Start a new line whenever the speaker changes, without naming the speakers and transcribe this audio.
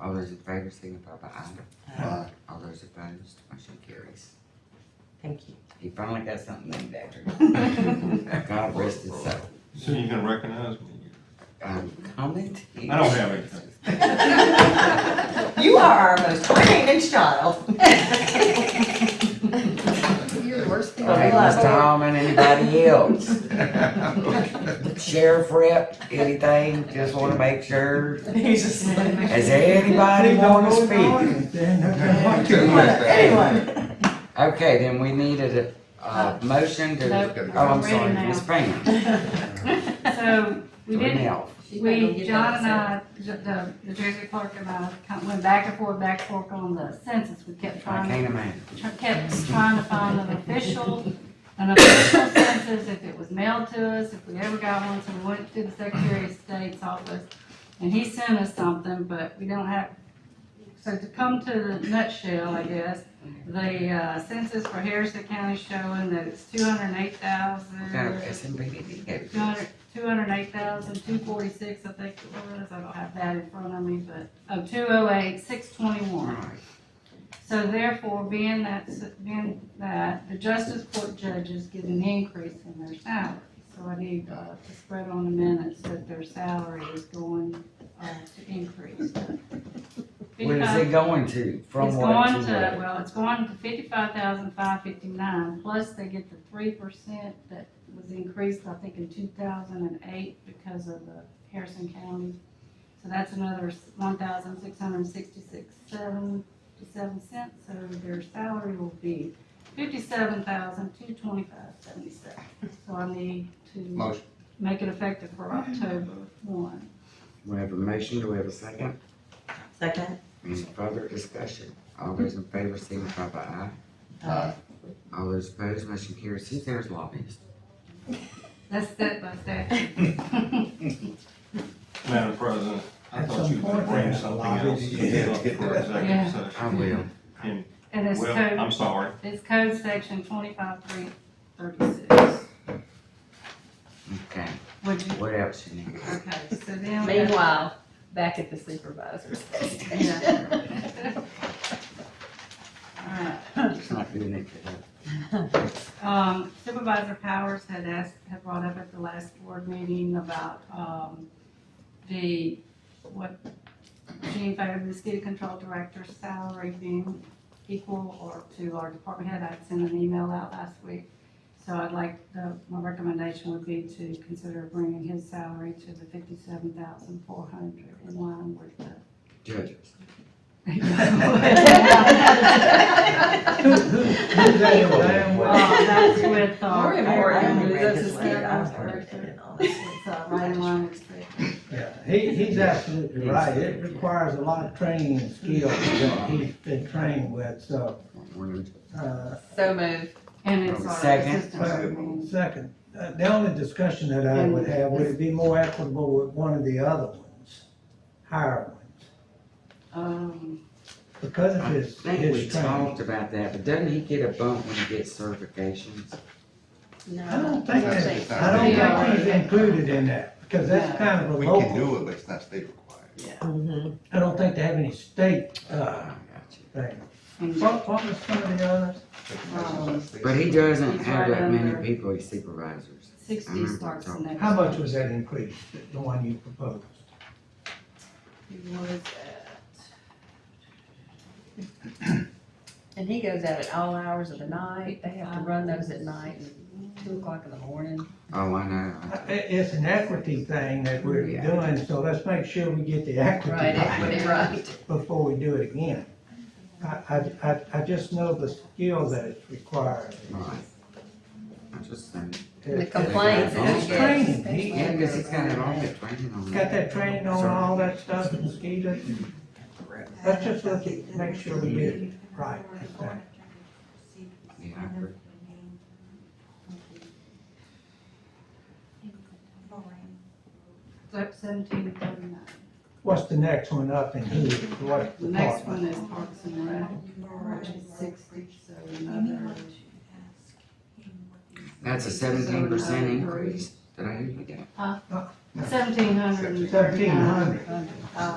All those in favor signify by aye.
Aye.
All those opposed, motion carries.
Thank you.
He finally got something named after him. God rest his soul.
Soon you can recognize me.
Um, comment?
I don't have anything.
You are our most creative child.
You're the worst people.
Okay, Ms. Tallman, anybody else?
Okay.
Sheriff rep, anything? Just wanna make sure.
He's just like,
Does anybody wanna speak?
anyone.
Okay, then we needed a, a motion
Uh, Nope.
to, oh, I'm sorry,
Ready now.
Ms. Pam.
So, we did,
Renell.
we, John and I, the- the, the Jersey clerk and I kind of went back and forth, back and forth on the census. We kept
I
trying,
Um,
can't imagine.
tr- kept trying to find an official, an official census, if it was mailed to us, if we ever got one, so we went to the Secretary of State's office. And he sent us something, but we don't have, so to come to the nutshell, I guess, the uh, census for Harrison County showing that it's two hundred and eight thousand.
No, S and P didn't get
Two hundred, two hundred eight thousand, two forty-six, I think it was, I don't have that in front of me, but, oh, two oh eight, six twenty-one. So therefore, being that, being that, the justice court judges get an increase in their salary. So I need, uh, to spread on the minutes that their salary is going, uh, to increase.
Where is it going to? From
It's
what
going to,
to
well, it's going to fifty-five thousand five fifty-nine, plus they get the three percent that was increased, I think, in two thousand and eight because of the Harrison County. So that's another one thousand six hundred sixty-six seventy-seven cents, so their salary will be fifty-seven thousand two twenty-five seventy-seven. So I need to
Motion.
make it effective for October one.
We have a motion, do we have a second?
Second?
Any further discussion? All those in favor signify by aye.
Aye.
All those opposed, motion carries. See, there's lobbyists.
That's step by step.
Madam President, I
At
thought
some
you were gonna
point,
bring
there's a
something
lot of
else to
these
get up for
kids.
Yeah.
executive
I
session.
will.
And it's
Well,
code,
I'm sorry.
it's code section twenty-five three thirty-six.
Okay,
Would you,
what else you need?
okay, so then.
Meanwhile, back at the supervisor's station.
Yeah. Alright,
It's not doing it today.
Um, Supervisor Powers had asked, had brought up at the last board meeting about, um, the, what Gene Fair, the mosquito control director's salary being equal or to our department head. I sent an email out last week. So I'd like, uh, my recommendation would be to consider bringing his salary to the fifty-seven thousand four hundred in line with
Judges.
the. Uh, that's with, uh,
Very
I
important.
only read
That's
his
his
letter. I was
standard.
irritated, honestly.
It's, uh, right in line with state.
Yeah, He, he's absolutely right. It requires a lot of training and skill that he's been trained with, so, uh,
So moved.
And it's our
Second.
assistant. admin.
second, uh, the only discussion that I would have, would it be more equitable with one of the other ones? Higher ones,
Um,
because of
I
his,
think we
his training.
talked about that, but doesn't he get a bump when he gets certifications?
I don't think
I
that,
think-
I don't think he's included in that, because that's kind of a
We can
local.
do it, but it's not state required.
Mhm.
I don't think they have any state, uh,
I got you.
thing.
and-
What, what was some of the others?
But he doesn't
He's
have
right
that many
under-
people as supervisors.
Sixty
Mm-hmm.
starts the next.
How much was that increase, the- the one you proposed?
He was at,
And he goes out at all hours of the night. They have to run those at night, two o'clock in the morning.
Oh, I know.
I- i- It's an equity thing that we're
Yeah.
doing, so let's make sure we get the
Right,
equity right
equity, right.
before we do it again. I, I, I- I just know the skill that is required.
Right. I just think,
And the
It-
complaints. that
It's
he gets,
training, he,
yeah,
has
because he's got it all that training on.
got that training on all that stuff, mosquitoes. Let's just look at, make sure we get it right. this time.
Yeah, I agree.
so seventeen to thirty-nine.
What's the next one up and who, what
The next
department?
one is Parks and Rec, which is sixty, so another.
That's a seventeen percent increase. Did I hear you?
Seventeen hundred and
Seventeen
thirty-nine.
hundred.